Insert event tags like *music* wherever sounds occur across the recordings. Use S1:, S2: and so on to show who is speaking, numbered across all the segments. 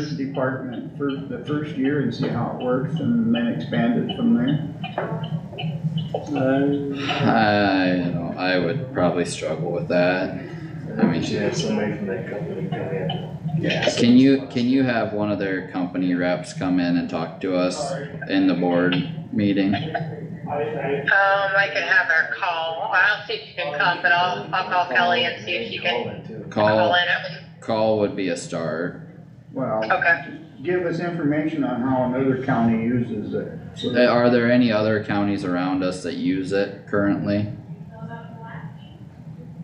S1: first department for the first year and see how it works and then expand it from there?
S2: I
S3: I, you know, I would probably struggle with that. I mean-
S4: We should have somebody from that company come in.
S2: Yeah.
S3: Can you, can you have one of their company reps come in and talk to us in the board meeting?
S5: Um, I could have her call. I'll see if she can come, but I'll, I'll call Kelly and see if she can
S4: Call in too.
S5: call
S3: Call,
S5: in at least.
S3: call would be a start.
S1: Well,
S5: Okay.
S1: give us information on how another county uses it. so that-
S3: Eh, Are there any other counties around us that use it currently?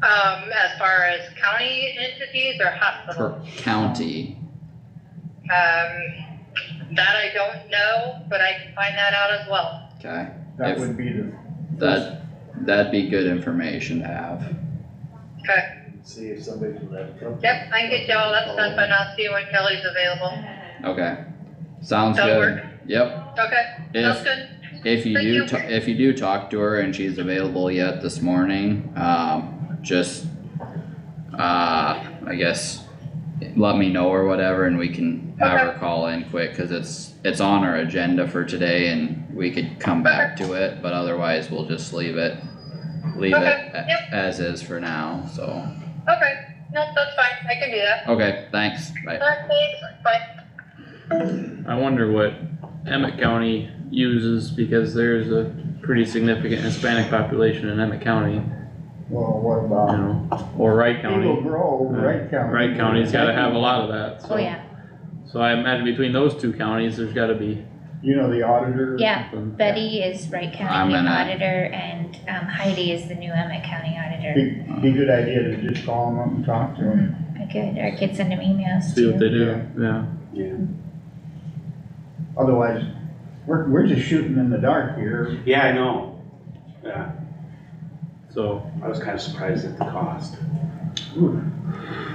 S5: Um, as far as county entities or hospitals,
S3: Per county?
S5: um, that I don't know, but I can find that out as well.
S3: Okay,
S1: That would be the,
S3: that, that'd be good information to have.
S5: Okay.
S4: See if somebody from that company.
S5: Yep, I can get you all that stuff and I'll see when Kelly's available.
S3: Okay, sounds
S5: That'll
S3: good.
S5: work.
S3: Yep,
S5: Okay, sounds
S3: if,
S5: good.
S3: if you
S5: Thank
S3: do,
S5: you.
S3: ta- if you do talk to her and she's available yet this morning, um, just, uh, I guess, let me know or whatever and we can have her call in quick, cause it's, it's on our agenda for today and we could come back to it, but otherwise we'll just leave it, leave it
S5: Okay, yep.
S3: a- as is for now, so.
S5: Okay, no, that's fine. I can do that.
S3: Okay, thanks, bye.
S5: All right, thanks. Bye.
S2: wonder what Emmett County uses because there's a pretty significant Hispanic population in Emmett County,
S1: well, what
S2: you
S1: about
S2: know, or Wright
S1: Eagle
S2: County. Uh,
S1: Grove, Wright County?
S2: Wright County's gotta have a lot of that, so.
S6: Oh, yeah,
S2: So I imagine between those two counties, there's gotta be.
S1: You know, the auditor?
S6: yeah,
S2: something.
S6: Betty is Wright
S3: I'm
S6: County
S3: gonna-
S6: Auditor and um, Heidi is the new Emmett County Auditor. Mm-hmm.
S1: Be, be good idea to just call them up and talk to them.
S6: I could, or I could send them emails
S2: See what
S6: too.
S2: they do, yeah.
S1: Otherwise, we're, we're just shooting in the dark here.
S7: Yeah, I know. Yeah,
S2: So
S7: I was kinda surprised at the cost.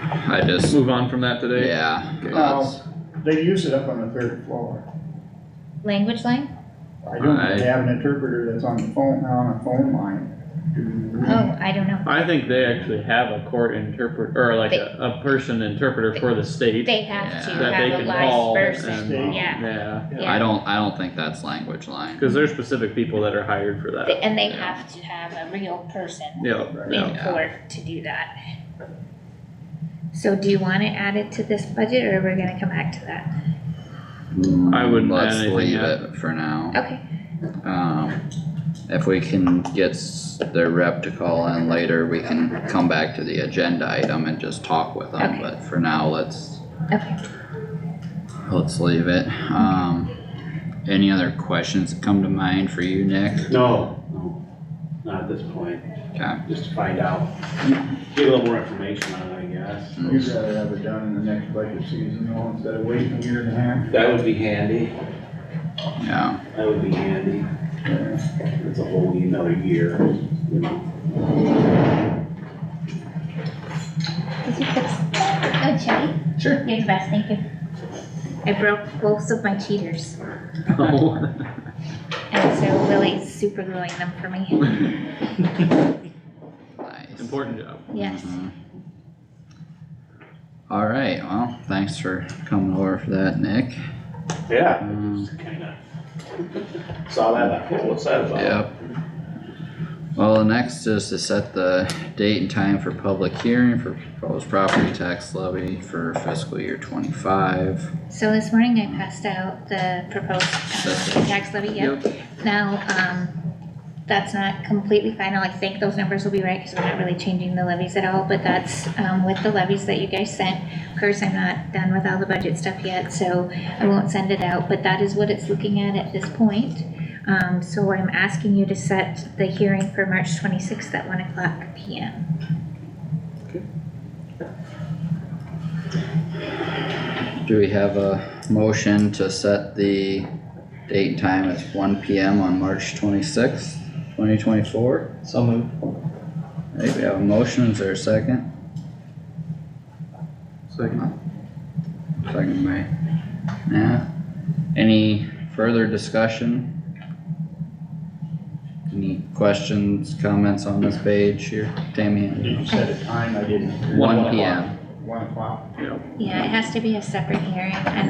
S3: I just,
S2: move on from that today.
S3: yeah,
S2: Okay.
S3: that's-
S1: They use it up on the third floor.
S6: Language line?
S1: I don't
S2: I-
S1: they have an interpreter that's on the phone, on a phone line.
S6: Oh, I don't know.
S2: Mm-hmm. I think they actually have a court interpret, or like a, a person interpreter for the state.
S6: They have to
S3: Yeah.
S2: That they
S6: have a
S2: can call
S6: live person,
S2: and-
S6: yeah,
S2: Yeah,
S3: I
S6: yeah.
S3: don't, I don't think that's language line.
S2: cause there's specific people that are hired for
S6: They-
S2: that.
S6: And they
S3: Yeah.
S6: have to have a real person
S2: Yeah, yeah.
S6: in court to do that. So do you want it added to this budget or we're gonna come back to that?
S2: I wouldn't add
S3: Let's
S2: anything
S3: leave
S2: yet.
S3: it for now.
S6: Okay,
S3: Um, if we can get s- their rep to call in later, we can come back to the agenda item and just talk with them,
S6: Okay.
S3: but for now, let's,
S6: okay.
S3: let's leave it. Um, any other questions that come to mind for you, Nick?
S7: No, no, not at this point,
S3: Okay,
S7: just to find out. Get a little more information on it, I guess.
S1: You'd rather have it done in the next budget season, though, instead of waiting a year and a half.
S7: That would be handy,
S3: yeah,
S7: that would be handy.
S1: Yeah.
S7: It's a whole another year, you know.
S6: Did you fix a chatty? Sure. You're the best, thank you. I broke both of my cheaters, *laughs* and so Willie's super gluing them for me.
S3: nice.
S2: *laughs* Important job.
S6: Yes.
S3: Mhm. Alright, well, thanks for coming over for that, Nick.
S7: Yeah,
S3: Um,
S7: just kinda. Saw that, like, oh, what's that about?
S3: Yep. Well, the next is to set the date and time for public hearing for proposed property tax levy for fiscal year twenty-five.
S6: So this morning I passed out the proposed uh, tax levy, yep. Now, um, that's not completely final, I think those numbers will be right, cause we're not really changing the levies at all, but that's, um, with the levies that you guys sent. Of course, I'm not done with all the budget stuff yet, so I won't send it out, but that is what it's looking at at this point. Um, so I'm asking you to set the hearing for March twenty-sixth at one o'clock P M.
S3: Do we have a motion to set the date and time as one P M on March twenty-sixth, twenty twenty-four?
S4: So moved.
S3: I think we have a motion, is there a second?
S2: Second.
S3: Second by, yeah. Any further discussion? Any questions, comments on this page here,
S1: Did
S3: Tammy?
S1: you set a time? I didn't.
S3: One P M.
S1: One o'clock.
S6: Yeah, it has to be a separate hearing, and